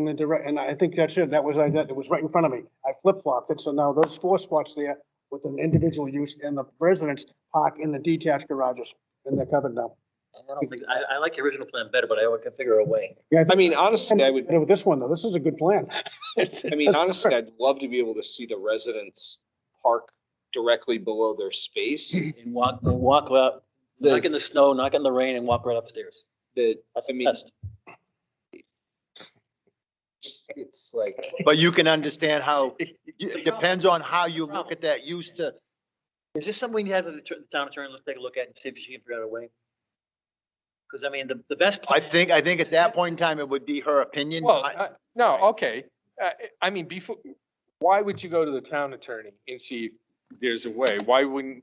in the direct, and I think that's it. That was, I, that was right in front of me. I flip flopped it. So now those four spots there with an individual use and the residents park in the detached garages and they're covered now. I don't think, I, I like the original plan better, but I can figure a way. Yeah, I mean, honestly, I would, With this one though, this is a good plan. I mean, honestly, I'd love to be able to see the residents park directly below their space. And walk, and walk up, knock in the snow, knock in the rain and walk right upstairs. That, That's I the mean, best. it's like, But you can understand how, it depends on how you look at that used to. Is this something you had to the tr- the town attorney, let's take a look at and see if she can figure out a way? Because I mean, the, the best. I plan- think, I think at that point in time, it would be her opinion. Well, I- uh, no, okay. Uh, I mean, before, why would you go to the town attorney and see if there's a way? Why wouldn't,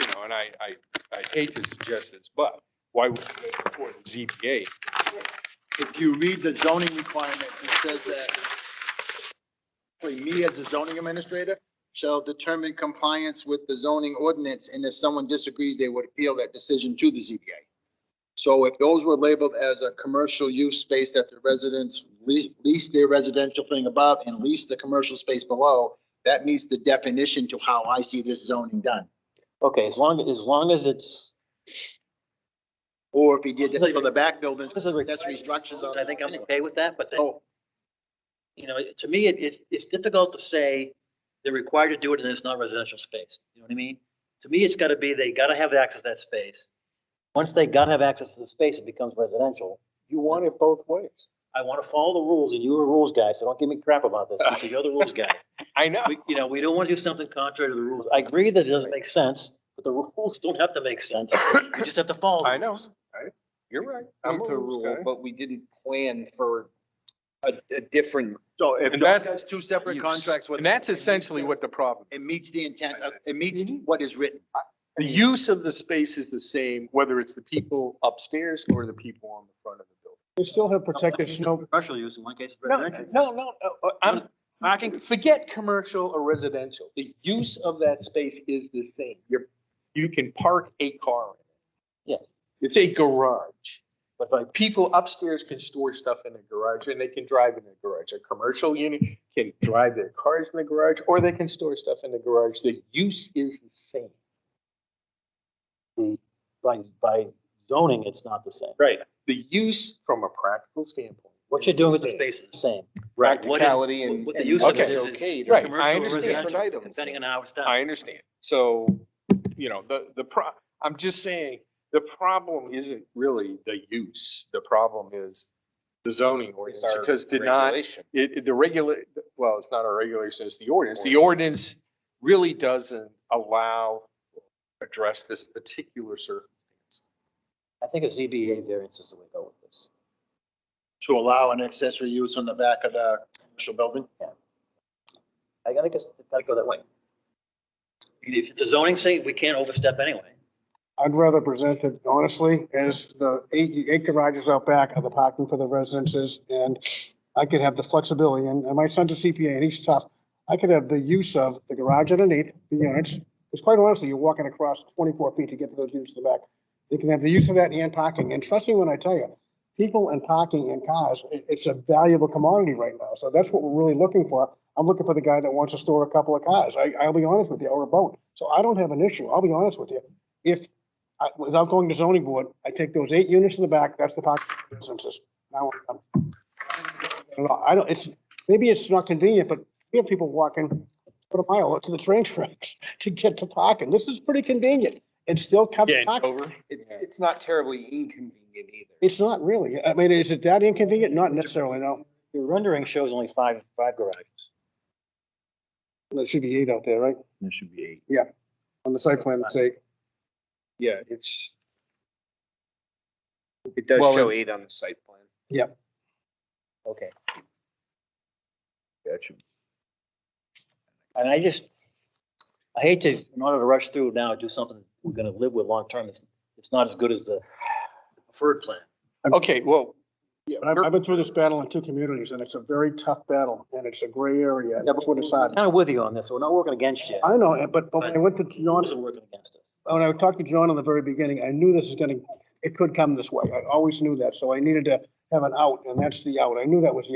you know, and I, I, I hate to suggest this, but why would you go before the ZBA? If you read the zoning requirements, it says that for me as a zoning administrator, shall determine compliance with the zoning ordinance, and if someone disagrees, they would appeal that decision to the ZBA. So if those were labeled as a commercial use space that the residents le- lease their residential thing above and lease the commercial space below, that meets the definition to how I see this zoning done. Okay, as long, as long as it's. Or if he did this for the back buildings, Because of the- accessory structures on. I think I'm okay with that, but. the- Oh, you know, it- to me, it, it's, it's difficult to say they're required to do it and it's not residential space. You know what I mean? To me, it's gotta be, they gotta have access to that space. Once they gotta have access to the space, it becomes residential. You want it both ways. I wanna follow the rules and you're a rules guy, so don't give me crap about this because you're the rules guy. I know. We, you know, we don't wanna do something contrary to the rules. I agree that it doesn't make sense, but the rules don't have to make sense. You just have to follow. them. I know. I- You're right. I'm to a rules rule, guy. but we didn't plan for a, a different. So if Doug And that's- has two separate Use. contracts with. And that's it meets essentially the- what the problem. It meets the intent, of- it meets what is written. The use of the space is the same, whether it's the people upstairs or the people on the front of the building. They still have protected snow. Commercial use in one case is No, residential. no, no, uh, uh, I'm, parking, forget commercial or residential. The use of that space is the same. You're, you can park a car. in it. Yes. It's a garage. But like, People upstairs can store stuff in the garage and they can drive in the garage. A commercial unit can drive their cars in the garage or they can store stuff in the garage. The use is the same. by, by zoning, it's not the same. Right. The use from a practical standpoint. What you're doing with the space is the same. Right, what it- Practicality and. what the and use of what it is is, is- okay to Right, do. I understand. residential, Items. Depending on how it's done. I understand. So, you know, the, the pro, I'm just saying, the problem isn't really the use. The problem is the zoning ordinance, It's our because did not, it, regulation. it- the regular, well, it's not our regulation, it's the ordinance. The ordinance really doesn't allow, address this particular circumstance. I think a ZBA variance is the way to go with this. To allow an accessory use on the back of the commercial building? I gotta guess, gotta go that way. If it's a zoning thing, we can't overstep anyway. I'd rather present it honestly as the eight, eight garages out back are the parking for the residences and I could have the flexibility and, and my son's a CPA and he's tough. I could have the use of the garage underneath the units. It's quite honestly, you're walking across twenty-four feet to get to those units in the back. You can have the use of that and parking. And trust me when I tell you, people and parking and cars, it, it's a valuable commodity right now. So that's what we're really looking for. I'm looking for the guy that wants to store a couple of cars. I, I'll be honest with you, or a boat. So I don't have an issue. I'll be honest with you. If I, without going to zoning board, I take those eight units in the back, that's the parking businesses. Now, I'm- I don't know, I don't, it's, maybe it's not convenient, but we have people walking for a mile up to the train tracks to get to parking. This is pretty convenient. It's still covered. Yeah, parking. over. It- It's not terribly inconvenient either. It's not really. I mean, is it that inconvenient? Not necessarily, no. Your rendering shows only five, five garages. There should be eight out there, right? There should be eight. On the site plan, it's eight. Yeah, it's. It does Well, show it- eight on the site plan. Okay. That should. And I just, I hate to, in order to rush through now, do something we're gonna live with long-term, it's, it's not as good as the preferred plan. Okay, well, yeah, But I've, I've been through this battle in two communities and it's a very tough battle and it's a gray area. That's what it's I'm on. Kind of with you on this, we're not working against you. I know, eh, but, but when I went to John's John's working against us. when I talked to John in the very beginning, I knew this is gonna, it could come this way. I always knew that, so I needed to have an out, and that's the out. I knew that was the